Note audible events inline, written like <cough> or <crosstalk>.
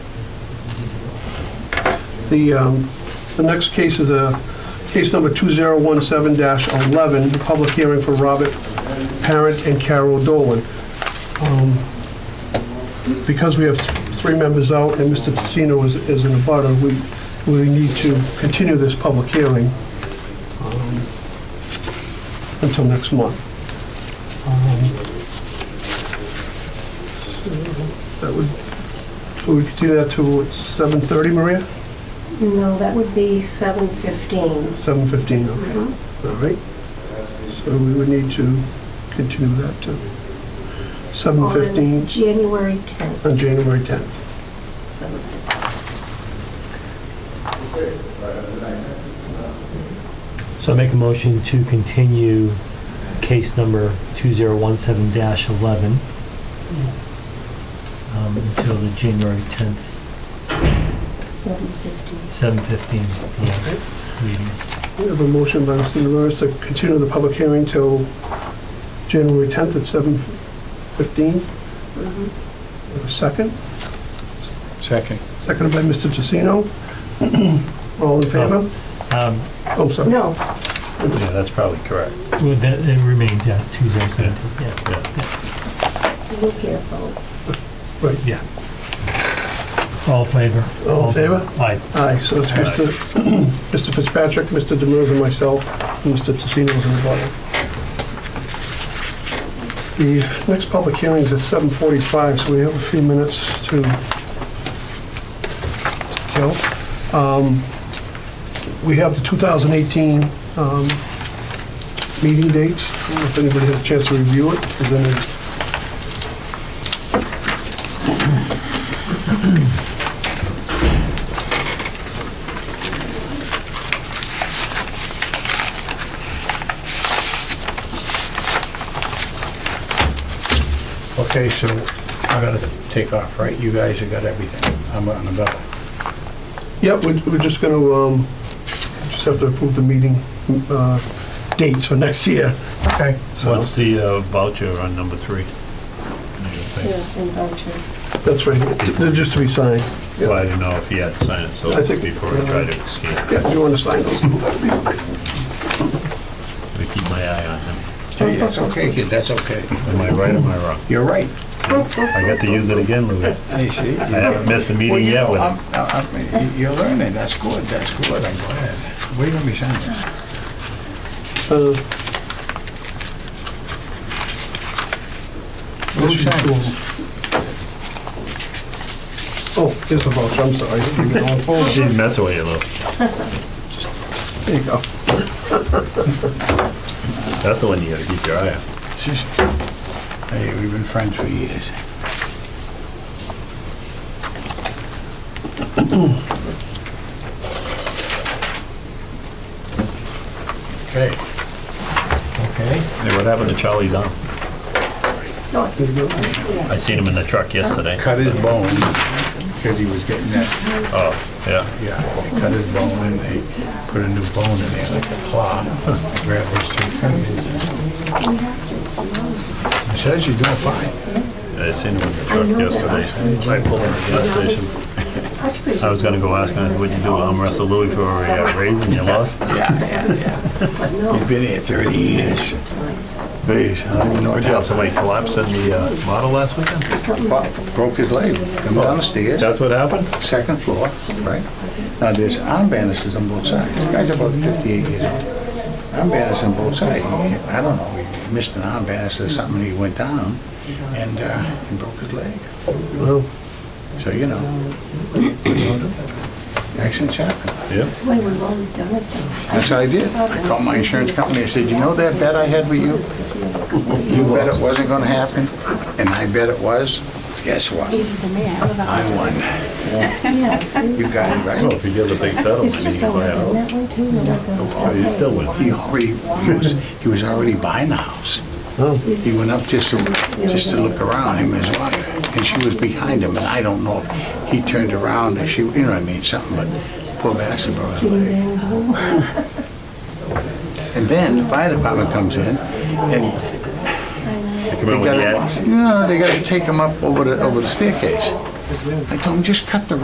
The, um, the next case is a case number 2017-11, a public hearing for Robert Parent and Carol Dolan. Um, Because we have th- three members out and Mr. Tassino is is in the butter, we, we need to continue this public hearing um, until next month. Um, That would, so we continue that to what, 7:30, Maria? No, that would be seven fifteen. 7:15, okay. All right. So we would need to continue that to 7:15 January tenth. on January 10th. So I make a motion to continue case number 2017-11 um, until the January 10th, Seven fifteen. 7:15 PM meeting. We have a motion by Mr. Demers to continue the public hearing till January 10th at 7:15. A Second, Second. seconded by Mr. Tassino. <clears throat> All in favor? Um, Oh, sorry. No, Yeah, that's probably correct. well, That it remains, yeah, 2017, yeah. look here, folks. All in favor? All in favor? Aye. Aye, so it's Mr. <clears throat> Mr. Fitzpatrick, Mr. Demers, and myself, and Mr. Tassino's in the bottom. The next public hearing is at 7:45, so we have a few minutes to kill. Um, We have the 2018 um, meeting dates, I don't know if anybody had a chance to review it, if there's any Okay, so I gotta take off, right? You guys have got everything. I'm on the bell. Yeah, we're, we're just gonna, um, just have to approve the meeting, uh, dates for next year. Okay. So, What's the uh, voucher on number three? yes, and vouchers. that's right, they're just to be signed. Yeah. Well, I didn't know if he had signed it, so I think- uh, before I try to escape, I Yeah, if you wanna sign those, that'd be fine. keep my eye on him. That's okay, kid, that's okay. Am I right or am I wrong? You're right. Oh, I got to use it again, Louis. I see. I haven't missed a meeting yet with him. You're learning, that's good, that's good, I'm glad. Where do we sign this? Uh, Where do we sign this? Oh, here's the voucher, I'm sorry. She's messing with you, Lou. <laughs> There you go. That's the one you gotta keep your eye on. Just- Hey, we've been friends for years. Okay. Okay. Hey, what happened to Charlie's arm? There you go. I seen him in the truck yesterday. Cut his bone, because he was getting that, Oh, yeah. yeah, they cut his bone and they put a new bone in there, like a claw. Grab those two fingers. It says you're doing fine. I seen him in the truck yesterday. I pulled him at the gas station. I was gonna go ask him, what'd you do, arm wrestle Louis for a uh, raise and you lost? You've been here 30 years. Please, I don't even know what Good happened. job, somebody collapsed in the uh, model last weekend? Well, Broke his leg, come down the stairs, That's what happened? second floor, right? Now, there's arm bandages on both sides. This guy's about 58 years old. Arm bandages on both sides. He- I don't know, he missed an arm bandage or something, and he went down and uh, he broke his leg. Well, So, you know. Accidents happen. Yeah. That's the way we've always done it. though. That's what I did. I called my insurance company, I said, you know that bet I had with you? You bet it wasn't gonna happen, and I bet it was. Guess what? easy for me. I live out I won. Yeah, see? You got it right. Well, if you get the big settlement, It's you just can buy always a been house. that way too. no one's ever Oh, So said you that. still win. He already, he was, he was already buying the house. He went up just to, just to look around, him and his wife, and she was behind him, and I don't know if he turned around and she, you know what I mean, something, but poor bastard broke his leg. Bang, boom. And then the fire department comes in, and You come in with They the gotta- X. No, they gotta take him up over the, over the staircase. I told him, just cut the